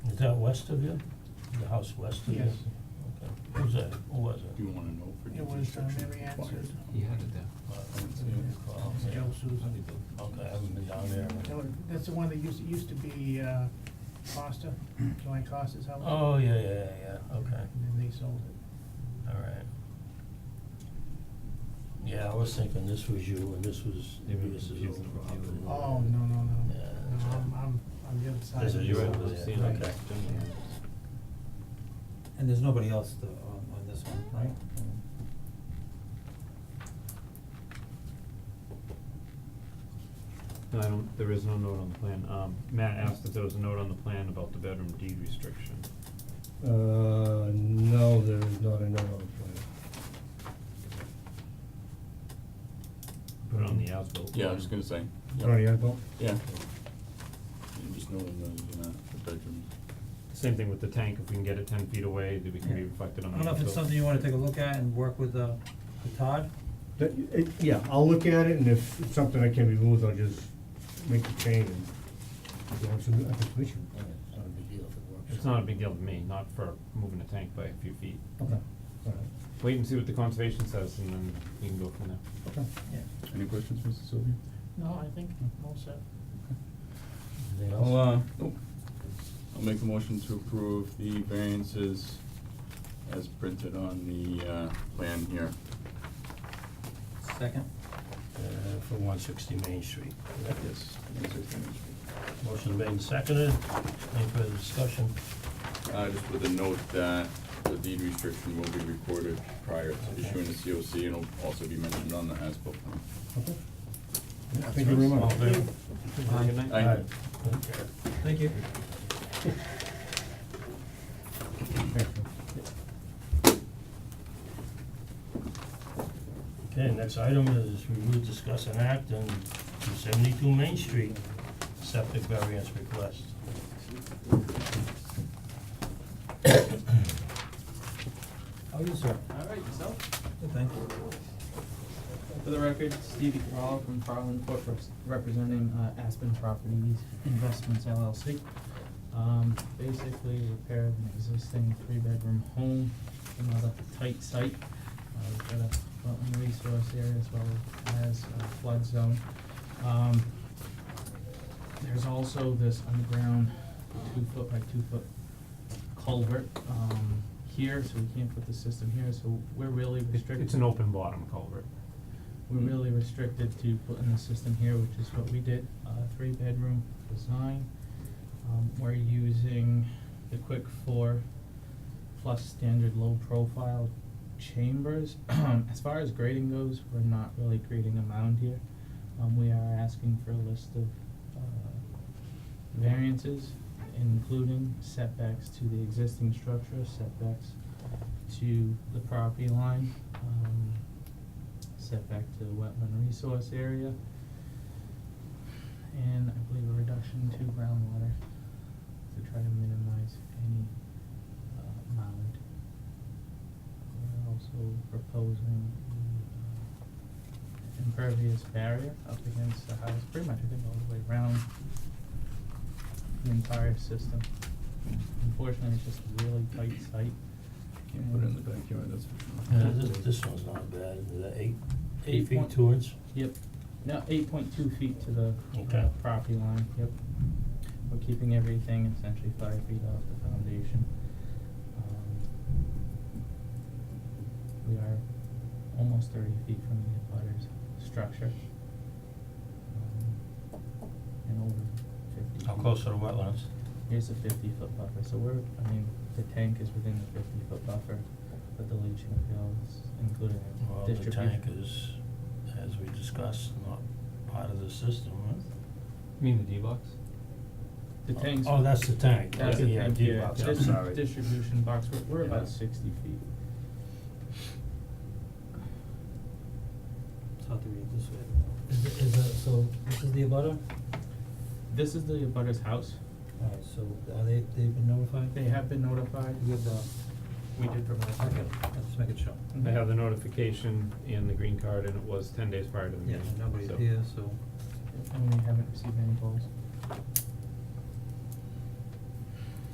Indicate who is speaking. Speaker 1: that west of you? The house west of you?
Speaker 2: Yes.
Speaker 1: Okay. Who's that? Who was it?
Speaker 3: You wanna know for
Speaker 2: It was uh,
Speaker 3: deconstruction
Speaker 2: Mary Ann
Speaker 3: required.
Speaker 2: Susan.
Speaker 4: He had it there.
Speaker 1: Uh, well,
Speaker 2: It's
Speaker 1: yeah.
Speaker 2: Joe Susan.
Speaker 1: Okay, I haven't been down there.
Speaker 2: That was- That's the one that used, it used to be uh, Costa, Joanne Costa's house.
Speaker 1: Oh, yeah, yeah, yeah, yeah, okay,
Speaker 2: And then they sold it.
Speaker 1: alright. Yeah, I was thinking this was you and this was, maybe this is
Speaker 5: confused
Speaker 1: old
Speaker 5: them with the
Speaker 1: property.
Speaker 5: other one.
Speaker 2: Oh, no, no, no.
Speaker 1: Yeah,
Speaker 2: No,
Speaker 1: that's
Speaker 2: I'm,
Speaker 1: right.
Speaker 2: I'm, I'm the other side.
Speaker 1: This
Speaker 2: of
Speaker 1: is
Speaker 2: the
Speaker 1: your
Speaker 2: house.
Speaker 1: opposite,
Speaker 2: Right.
Speaker 1: okay.
Speaker 2: Yeah.
Speaker 5: And there's nobody else to, on, on this one, right?
Speaker 6: No, I don't, there is no note on the plan. Um, Matt asked if there was a note on the plan about the bedroom deed restriction.
Speaker 7: Uh, no, there is not another plan.
Speaker 6: Put it on the as-built.
Speaker 3: Yeah, I was gonna say. yeah.
Speaker 7: Sorry, I don't-
Speaker 3: Yeah. And just knowing those, you know, the bedrooms.
Speaker 6: Same thing with the tank, if we can get it ten feet away, that we can be reflected on the
Speaker 5: I don't know if it's
Speaker 6: as-built.
Speaker 5: something you wanna take a look at and work with, uh, with Todd,
Speaker 7: That, it, yeah, I'll look at it, and if it's something that can be moved, I'll just make the change and, you know, it's a, uh, a completion.
Speaker 8: It's not a big deal if it works.
Speaker 6: It's not a big deal to me, not for moving a tank by a few feet.
Speaker 7: Okay, alright,
Speaker 6: Wait and see what the conservation says and then we can go from there.
Speaker 7: okay.
Speaker 3: Any questions, Mr. Sylvia?
Speaker 2: No, I think I'm all set.
Speaker 1: Anything else?
Speaker 3: I'll, uh, nope. I'll make a motion to approve the variances as printed on the, uh, plan here.
Speaker 5: second,
Speaker 1: Uh, for one sixty Main Street.
Speaker 3: Yes.
Speaker 1: Motion made and seconded, any further discussion?
Speaker 3: Uh, just with a note that the deed restriction will be recorded prior to issuing the COC and will also be mentioned on the as-built plan.
Speaker 7: Thank you very
Speaker 1: All
Speaker 7: much.
Speaker 1: in favor?
Speaker 6: Good night.
Speaker 3: Aye.
Speaker 7: Alright,
Speaker 1: Okay.
Speaker 5: thank you.
Speaker 7: thank you.
Speaker 1: Okay, next item is review, discuss, and act on two seventy-two Main Street septic variance request.
Speaker 5: How are you, Oh, sir?
Speaker 9: Alright, yourself?
Speaker 5: Good, thank you.
Speaker 9: For the record, Stevie Carall from Farland Corp. reps- representing uh, Aspen Properties Investments LLC. Um, basically repair of an existing three-bedroom home, another tight site. Uh, we've got a wetland resource area as well as a flood zone. Um, there's also this underground two-foot by two-foot culvert, um, here, so we can't put the system here, so we're really restricted.
Speaker 6: It's an open bottom culvert.
Speaker 9: We're really restricted to putting the system here, which is what we did, uh, three bedroom design. Um, we're using the quick four plus standard low profile chambers. As far as grading goes, we're not really grading a mound here. Um, we are asking for a list of, uh, variances, including setbacks to the existing structure, setbacks to the property line, um, setback to the wetland resource area, and I believe a reduction to groundwater to try to minimize any, uh, mound. We're also proposing the, uh, impervious barrier up against the house, pretty much, I think, all the way around the entire system. Unfortunately, it's just a really tight site.
Speaker 3: Can't put it in the backyard, that's for sure.
Speaker 1: Yeah, this, this one's not bad, is that eight, eight
Speaker 9: Eight
Speaker 1: feet
Speaker 9: point-
Speaker 1: two inch?
Speaker 9: Yep, no, eight point two feet to the uh,
Speaker 1: Okay.
Speaker 9: property line, yep. We're keeping everything essentially five feet off the foundation. Um, We are almost thirty feet from the abutter's structure. Um, And over fifty.
Speaker 1: How
Speaker 9: feet.
Speaker 1: close are the wetlands?
Speaker 9: Here's a fifty foot buffer, so we're, I mean, the tank is within the fifty foot buffer, but the leaching fields, including
Speaker 1: Well, the
Speaker 9: distribution.
Speaker 1: tank is, as we discussed, not part of the system, right?
Speaker 6: You mean the D-box?
Speaker 9: The tanks.
Speaker 1: Oh, that's the tank, yeah,
Speaker 9: That's the
Speaker 1: yeah,
Speaker 9: tank
Speaker 1: deep
Speaker 9: here,
Speaker 1: box, I'm
Speaker 9: dis-
Speaker 1: sorry.
Speaker 9: distribution box, we're, we're
Speaker 1: Yeah.
Speaker 9: about sixty feet.
Speaker 5: It's hard to read this way. Is it, is it, so, this is the abutter?
Speaker 9: This is the abutter's house,
Speaker 5: Alright, so are they, they've been notified?
Speaker 9: they have been notified,
Speaker 5: You have the,
Speaker 9: we did provide.
Speaker 5: okay, let's make it show.
Speaker 6: I have the notification and the green card and it was ten days prior to the
Speaker 5: Yeah,
Speaker 6: meeting,
Speaker 5: nobody's
Speaker 6: so-
Speaker 5: here, so.
Speaker 9: And we haven't received any calls.